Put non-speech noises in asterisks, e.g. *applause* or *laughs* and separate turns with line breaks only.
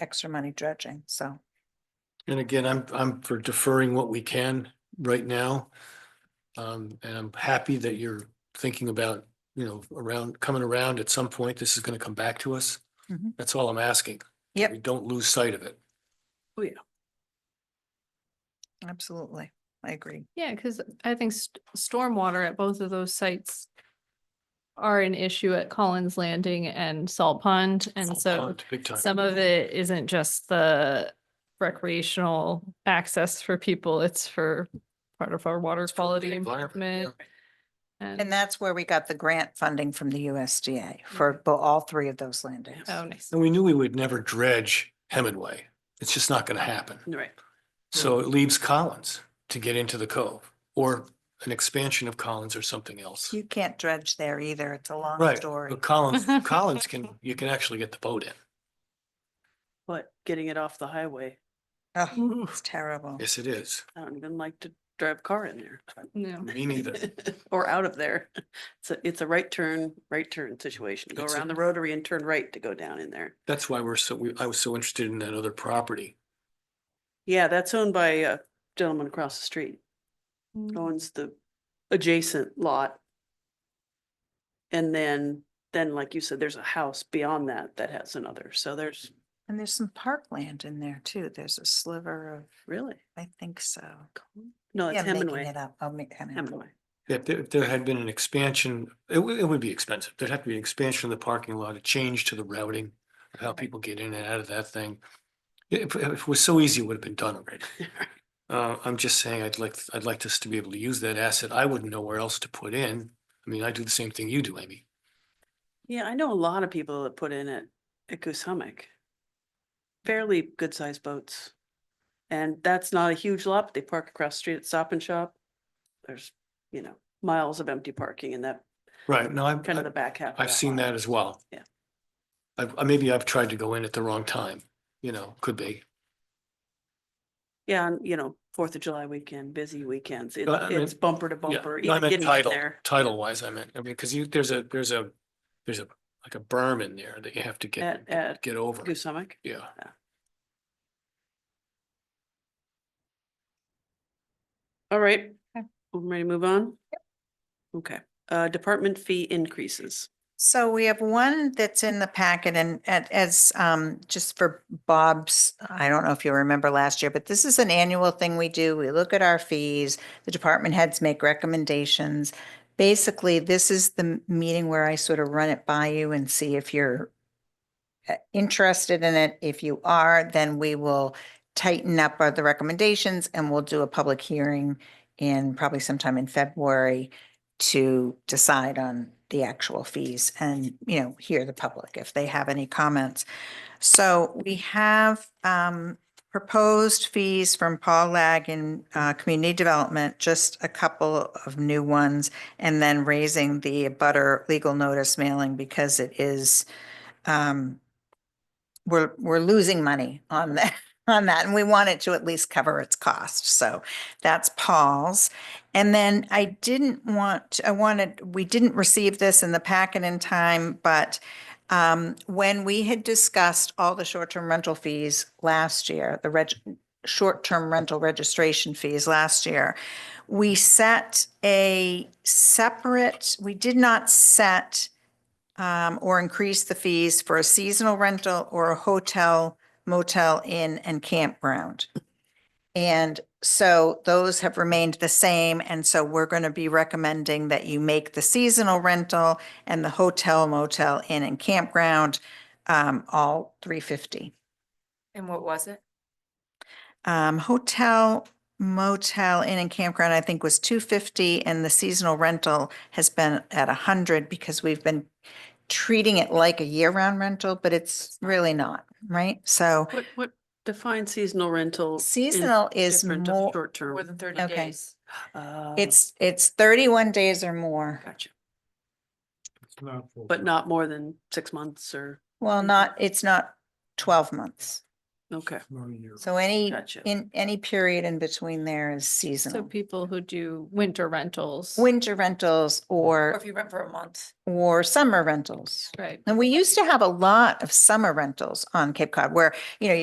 extra money dredging, so.
And again, I'm, I'm for deferring what we can right now. Um, and I'm happy that you're thinking about, you know, around, coming around at some point, this is gonna come back to us.
Mm-hmm.
Mhm.
That's all I'm asking.
Yep.
We Don't lose sight of it.
Absolutely, I agree.
Yeah, because I think st- stormwater at both of those sites are an issue at Collins Landing and Salt Pond. And so
Big time.
some of it isn't just the recreational access for people, it's for part of our water
for the
quality
environment,
improvement.
And
And,
that's where we got the grant funding from the USDA
Mm-hmm.
for bo- all three of those landings.
oh, nice.
And we knew we would never dredge Hemingway. It's just not gonna happen.
Right.
So it leaves Collins to get into the cove or an expansion of Collins or something else.
You can't dredge there either. It's a long
Right,
story.
But
*laughs*
Collins, Collins can, you can actually get the boat in.
But getting it off the highway,
Ugh, It's terrible.
Yes, it is.
I don't even like to drive a car in there.
No,
Me neither.
*laughs* Or out of there. It's a, it's a right turn, right turn situation. Go
It's a-
around the rotary and turn right to go down in there.
That's why we're so, we- I was so interested in that other property.
Yeah, that's owned by a gentleman across the street. owns the adjacent lot. And then, then like you said, there's a house beyond that that has another. So there's
And there's some parkland in there too. There's a sliver of,
really,
I think so.
no,
Yeah,
Oh, it's
I'm making it
Hemingway.
up. I'll make kind of.
Hemingway.
If there, if there had been an expansion, it would, it would be expensive. There'd have to be an expansion of the parking lot, a change to the routing, of how people get in and out of that thing. If, if it was so easy, it would have been done *laughs* already. Uh, I'm just saying, I'd like, I'd like us to be able to use that asset. I wouldn't know where else to put in. I mean, I do the same thing you do, Amy.
Yeah, I know a lot of people that put in at, at Goose Hummock. Fairly good sized boats. And that's not a huge lot, but they park across the street at Stop and Shop. There's, you know, miles of empty parking in that,
Right, no, I've,
kind of the back half. of
I've seen
lot.
that as well.
Yeah.
I've, I- maybe I've tried to go in at the wrong time, you know, could be.
Yeah, and you know, Fourth of July weekend, busy weekends, it-
Uh, I mean-
it's bumper to
Yeah,
bumper,
no, I
even
meant
getting in
title,
there.
title wise, I meant, I mean, because you, there's a, there's a, there's a, like a berm in there that you have to
At-
get,
at
get over.
Goose Hummock,
Yeah.
all right,
Okay.
I'm ready to move on? Okay, uh, department fee increases,
So we have one that's in the packet and and as um just for Bob's, I don't know if you remember last year, but this is an annual thing we do. We look at our fees. The department heads make recommendations. Basically, this is the m- meeting where I sort of run it by you and see if you're uh, interested in it. If you are, then we will tighten up our- the recommendations and we'll do a public hearing in probably sometime in February to decide on the actual fees and, you know, hear the public if they have any comments. So we have um, proposed fees from Paul Lag in uh, Community Development, just a couple of new ones, and then raising the butter legal notice mailing because it is, um, we're, we're losing money on *laughs* that, on that, and we want it to at least cover its cost. So that's Paul's. And then I didn't want, I wanted, we didn't receive this in the packet in time, but um, when we had discussed all the short-term rental fees last year, the reg, short-term rental registration fees last year, we set a separate, we did not set um, or increase the fees for a seasonal rental or a hotel, motel, inn, and campground. And so those have remained the same, and so we're going to be recommending that you make the seasonal rental and the hotel motel inn and campground um, all three fifty.
And what was it?
Um, hotel motel inn and campground, I think was two fifty, and the seasonal rental has been at a hundred because we've been treating it like a year-round rental, but it's really not, right? So
what, what defines seasonal rental? in
seasonal is
different of
more,
Short term.
More than thirty
Okay.
days.
Uh,
it's, it's thirty-one days or more.
Gotcha, but not more than six months or,
Well,
Mhm.
not, it's not twelve months.
Okay,
Or your-
So any,
Gotcha.
in, any period in between there is
So
seasonal.
people who do winter rentals.
Winter rentals
Or
or,
if you rent for a month.
or summer rentals.
Right.
And we used to have a lot of summer rentals on Cape Cod where, you know, you